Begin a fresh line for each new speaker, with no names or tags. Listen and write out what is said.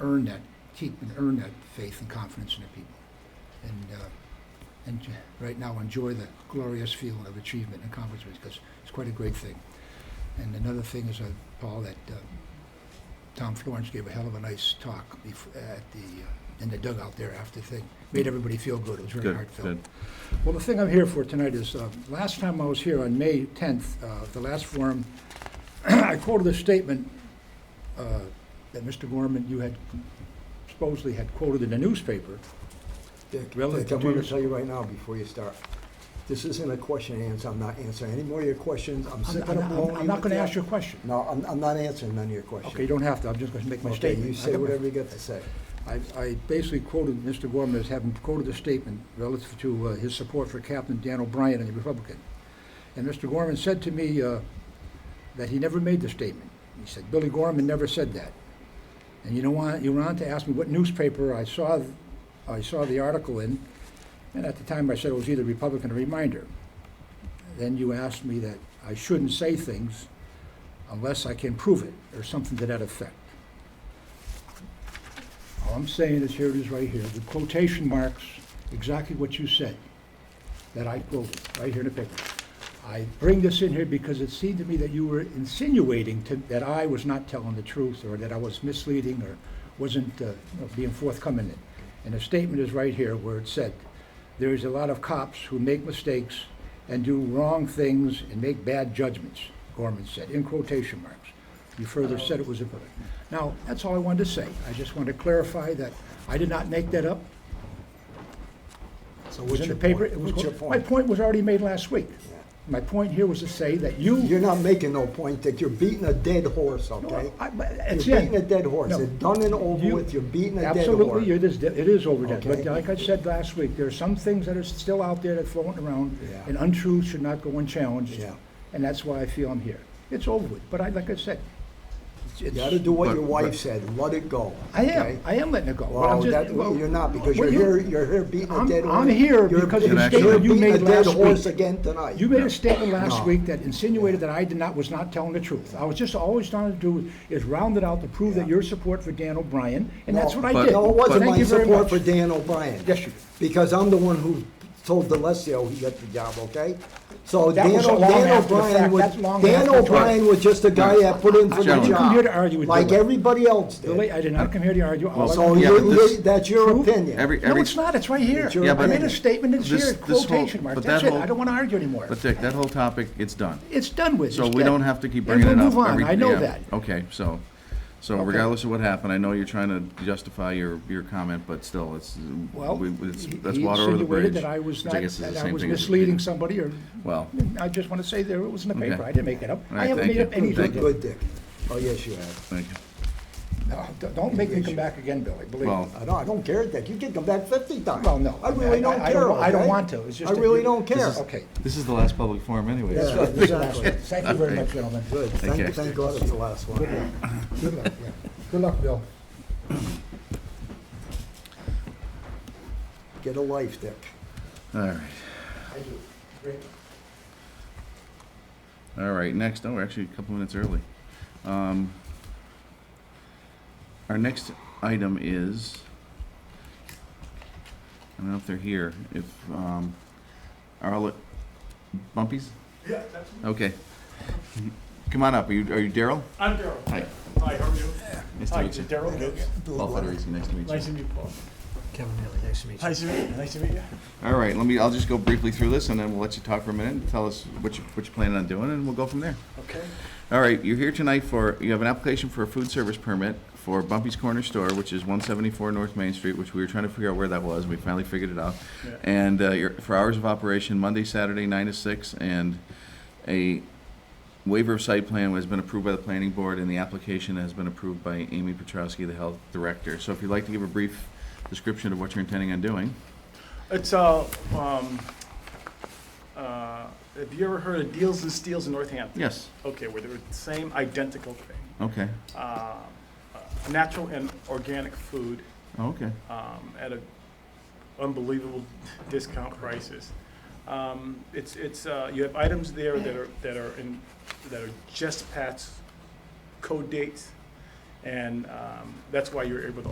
earn that, keep and earn that faith and confidence in the people. And, uh, and j- right now, enjoy the glorious feeling of achievement and accomplishment because it's quite a great thing. And another thing is, uh, Paul, that uh, Tom Florence gave a hell of a nice talk bef- at the, uh, in the dugout there after the thing. Made everybody feel good. It was very
Good,
heartfelt.
good.
Well, the thing I'm here for tonight is, uh, last time I was here on May 10th, uh, the last forum, I quoted a statement uh, that Mr. Gorman, you had supposedly had quoted in the newspaper.
Dick, Dick,
Relative
I'm
to
gonna
your-
tell you right now before you start, this isn't a question and answer, I'm not answering any more of your questions, I'm
I'm
sick of
I'm-
blowing
I'm-
you.
I'm not
with
going to
that.
ask you a question.
No, I'm, I'm not answering none of your questions.
Okay, you don't have to, I'm just going to make my
Okay,
statement.
you
I
say
got my-
whatever you got to say.
I, I basically quoted Mr. Gorman as having quoted a statement relative to uh, his support for Captain Dan O'Brien and the Republican. And Mr. Gorman said to me uh, that he never made the statement. He said, Billy Gorman never said that. And you know what? You went on to ask me what newspaper I saw, th- I saw the article in, and at the time I said it was either Republican or Reminder. Then you asked me that I shouldn't say things unless I can prove it, or something to that effect. All I'm saying is, here it is right here, the quotation marks exactly what you said, that I quoted, right here in the paper. I bring this in here because it seemed to me that you were insinuating to, that I was not telling the truth, or that I was misleading, or wasn't uh, you know, being forthcoming. And the statement is right here where it said, "There is a lot of cops who make mistakes and do wrong things and make bad judgments," Gorman said, in quotation marks. You further said it was a, now, that's all I wanted to say. I just want to clarify that I did not make that up. It
So
was
what's
in the
your
paper.
point?
It was
What's your
My
point?
point was already made last week.
Yeah.
My point here was to say that you.
You're not making no point, Dick, you're beating a dead horse, okay?
I- but
You're
it's in.
beating a dead horse,
No.
it's done and
You-
over with, you're beating a dead horse.
Absolutely, it is, it is overdone. But
Okay.
like I said last week, there are some things that are still out there that floating around,
Yeah.
and untruths should not go unchallenged.
Yeah.
And that's why I feel I'm here. It's over with, but I, like I said, it's-
You
it's.
gotta do what
But-
your
but-
wife said, let it go.
I
okay?
am, I am letting it go. but I'm
Well,
just-
that,
well,
you're not, because
well,
you're here, you're here beating a
I'm-
dead horse.
I'm here
You're-
because of
the
you're
statement
you
beating
made
a dead
last
horse
week.
Again tonight.
You made a statement last
No.
week that insinuated that I did not, was not telling the truth. I was just always trying to do is round it out to prove that
Yeah.
your support for Dan O'Brien, and
No,
that's what I
but-
did.
No, it wasn't
Thank
my
you very
support
much.
for Dan O'Brien.
Yes, you did.
Because I'm the one who told DeLassio he got the job, okay? So
That
Dan
was
O-
long
Dan
after the
O'Brien
fact.
was,
That's long
Dan
after the fact.
O'Brien was just a guy that put in for the
Gentlemen.
job.
You
come here to argue with
Like
Billy.
everybody else did.
Billy, I did not come here to argue. All I-
So
Yeah,
you-
but this-
you- that's your
True.
opinion.
Every,
No,
every,
it's not, it's right here.
your Yeah,
I
but-
made a statement, it's
this-
here,
this whole-
quotation marks,
but
that's
that
it,
whole-
I don't want to argue anymore.
but Dick, that whole topic, it's done.
It's done with,
So
it's
we
dead.
don't have to keep
And
bringing it
we'll
up.
move on,
every-
I know
yeah, Oh,
that.
Okay, so, so regardless of what happened, I know you're trying to justify your, your comment, but still, it's,
Well,
we-
he
it's,
he
that's water over the
insinuated
bridge.
that I was
which
not,
guess is the
that I
same
was
thing as-
misleading somebody, or,
Well,
I just want to say there, it was in the
Okay.
paper, I didn't make it up.
All right,
I haven't
thank
made
you.
up anything.
Good, good, Dick. Oh, yes, you have.
thank you.
No, d- Don't make me come back again, Billy, believe me.
Well,
I don't, I don't care, Dick. You can come back fifty times.
Well, no.
I really don't
I- I
care,
I don't
okay?
want to, it's just.
I
that
really
you-
don't care.
Okay.
this is the last public forum anyway.
Yeah,
so-
exactly.
Thank you very much, gentlemen.
Good,
Okay.
thank, thank God it's the last one.
Good luck, yeah. Good luck, Bill.
Get a life, Dick.
All right,
I do. Great.
all right, next, oh, we're actually a couple minutes early. Um, Our next item is, I don't know if they're here, if, um, are all, Bumpies?
Yeah, that's me.
Okay. Come on up. Are you, are you Daryl?
I'm Daryl.
Hi.
Hi, how are you?
Nice to
Hi,
meet you.
Daryl Gibbs.
Paul Federici, nice to meet
Nice to
you.
meet you, Paul.
Kevin Neely, nice to meet
Nice to meet you. Nice to meet you.
All right, let me, I'll just go briefly through this and then we'll let you talk for a minute and tell us what you, what you're planning on doing and we'll go from there.
Okay.
All right, you're here tonight for, you have an application for a food service permit for Bumpy's Corner Store, which is one seventy-four North Main Street, which we were trying to figure out where that was, and we finally figured it out.
Yeah.
And, uh, your, for hours of operation, Monday, Saturday, nine to six, and a waiver of site plan has been approved by the planning board, and the application has been approved by Amy Petrowski, the health director. So if you'd like to give a brief description of what you're intending on doing,
It's uh, um, uh, have you ever heard of Deals and Steals in Northampton?
yes,
Okay, where they were the same identical thing.
okay,
Uh, uh, natural and organic food
oh, okay,
um, at a unbelievable discount prices. Um, it's it's uh, you have items there that are that are in that are just past code dates, and um, that's why you're able to